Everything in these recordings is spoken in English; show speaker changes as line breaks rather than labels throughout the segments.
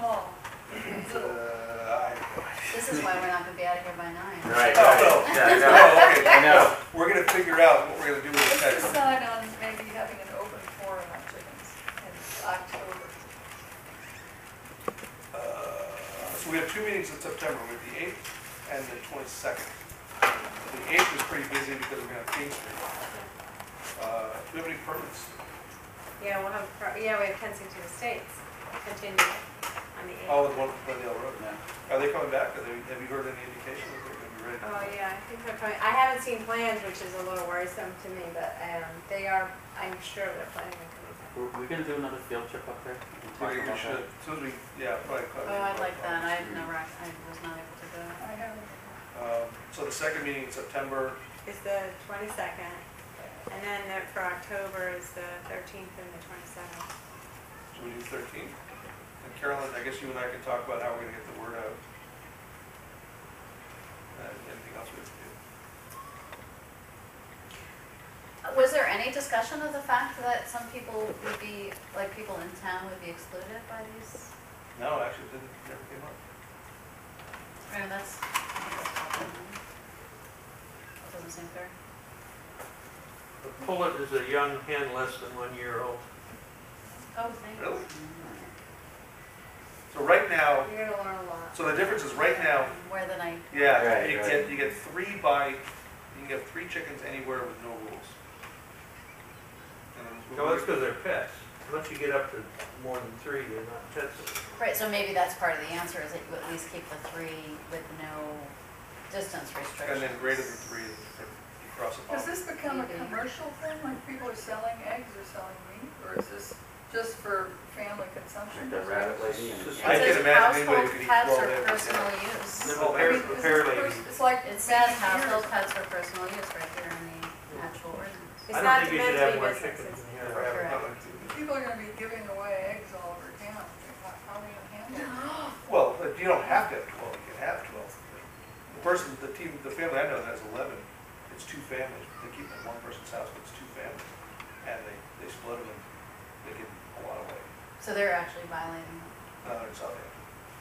Uh,
is why we're not gonna be out of here by nine.
Right,
Oh,
right, yeah, I know.
Oh, okay.
I know.
We're gonna figure out what we're gonna do with the
Let's
next.
decide on maybe having an open forum on chickens in October.
Uh, So we have two meetings in September, we have the eighth and the twenty-second. The eighth is pretty busy because we're gonna have King Street. Uh, Do we have any permits?
Yeah, we'll have, pro- yeah, we have Kensington Estates continue on the eighth.
Oh, with one from Glendale Road. Are they coming back? Are they, have you heard any indication that they're gonna be ready?
Oh, yeah, I think they're coming, I haven't seen plans, which is a little worrisome to me, but, um, they are, I'm sure they're planning on coming back.
We're, we're gonna do another field trip up there. We can
We
talk
we
about
should,
that.
as soon as we, yeah, probably.
Oh, I'd like that, I had never, act- I was not able to go.
I have,
Um, So the second meeting in September,
It's the twenty-second, and then the- for October is the thirteenth and the twenty-seventh.
So we do thirteen. And Carolyn, I guess you and I can talk about how we're gonna get the word out. And anything else we have to do.
Was there any discussion of the fact that some people would be, like, people in town would be excluded by these?
No, actually, it didn't, never came up.
Or that's. That doesn't seem fair.
A pullet is a young hen less than one year old.
Oh, thank you.
Really? So right
Oh.
now,
You're gonna learn a lot.
so the difference is right now,
Where the night,
yeah,
Right,
you
right.
get, you get three by, you can get three chickens anywhere with no rules. And then
No, that's because they're pets. Once you get up to more than three, they're not pets anymore.
right, so maybe that's part of the answer, is that you at least keep the three with no distance restrictions.
And then greater than three, is different. you cross them
has
off.
this become a
Maybe.
commercial thing, like people are selling eggs or selling meat, or is this just for family consumption?
Like the rabbit lady and.
Just-
I
It
can
says
imagine anybody
household
could eat
pets
twelve
or
eggs,
personal
yeah.
use.
Then
Oh,
I
repair,
mean, is this
repair
the
lady,
first- It's like.
It says
meat and
household
beers.
pets for personal use right here in the actual ordinance.
It's not
I don't think you
meant
should
to be
have more
business,
chickens
it's-
than you have rabbits.
Public.
People are gonna be giving away eggs all over town, how are we gonna handle it?
Well, but you don't have to have twelve, you can have twelve. The person, the team, the family I know that has eleven, it's two families, they keep it in one person's house, but it's two families. And they, they split them and they give a lot away.
So they're actually violating,
No, it's out there,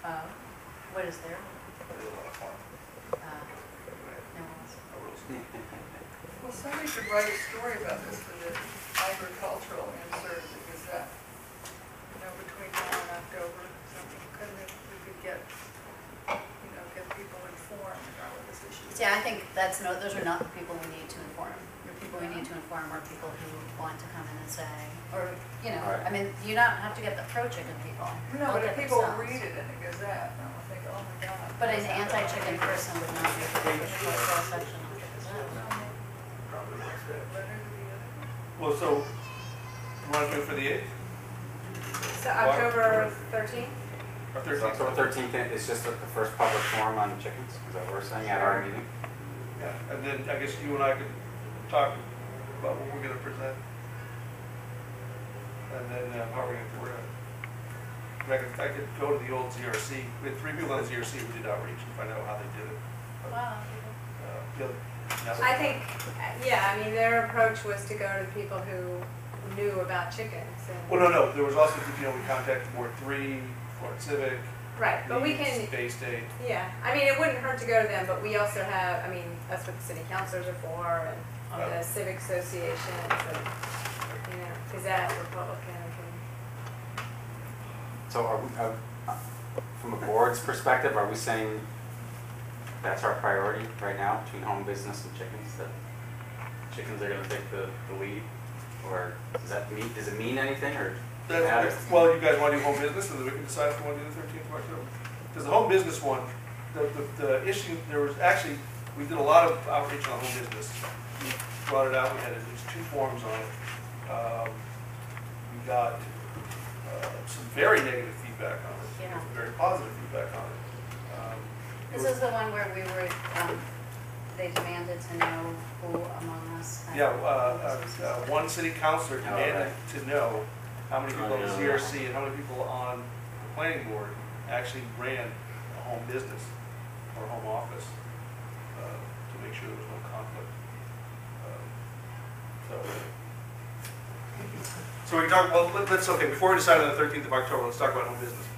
uh, what is their,
they do a lot of farming.
uh,
Right,
no one's.
no rules.
Well, somebody should write a story about this for the agricultural insert, because that, you know, between now and October, something, couldn't it, we could get, you know, get people informed about what this issue is.
See, I think that's no, those are not the people we need to inform. The people we need to inform are people who want to come in and say, or, you know, I
Right.
mean, you don't have to get the pro-chicken people.
No, but
They'll
if
get
people
themselves.
read it in the Gazette, I will think, oh my God.
But an anti-chicken person would not be able to get a cross section of the Gazette.
probably like that.
Well, so, you wanna do it for the eighth,
So October thirteenth?
or
So
thirteenth?
October thirteenth is just like the first public forum on chickens, is that what we're saying at our meeting?
Yeah, and then I guess you and I could talk about what we're gonna present. And then uh, how we're gonna, we're gonna, I could, I could go to the old ZRC, we had three people on ZRC who did outreach and find out how they did it.
Wow.
Uh, the other- nothing.
I think, uh, yeah, I mean, their approach was to go to the people who knew about chickens
Well,
and,
no, no, there was also, you know, we contacted Ward Three, Florida Civic.
right, but we
Leeds,
can,
Bay State.
yeah, I mean, it wouldn't hurt to go to them, but we also have, I mean, that's what the city councilors are for and
Right.
the civic associations and, you know, Gazette, Republican, and
So are we, uh, uh, from a board's perspective, are we saying that's our priority right now between home business and chickens? That chickens are gonna take the, the lead? Or does that mean, does it mean anything or matter?
That's, well, you guys wanna do home business, and then we can decide if we wanna do the thirteenth of October. Because the home business one, the, the, the issue, there was actually, we did a lot of outreach on home business. We brought it out, we had at least two forums on it. Um, we got, uh, some very negative feedback on it,
Yeah.
some very positive feedback on it. Um, it
This
was-
is the one where we were, um, they demanded to know who among us. had-
Yeah, uh, uh, uh, one city councillor
Oh,
demanded to know how many people on the
Oh, yeah.
CRC and how many people on the planning board actually ran a home business or home office, uh, to make sure there was no conflict. Uh, So, so we can talk, well, let- let's, okay, before we decide on the thirteenth of October, let's talk about home business.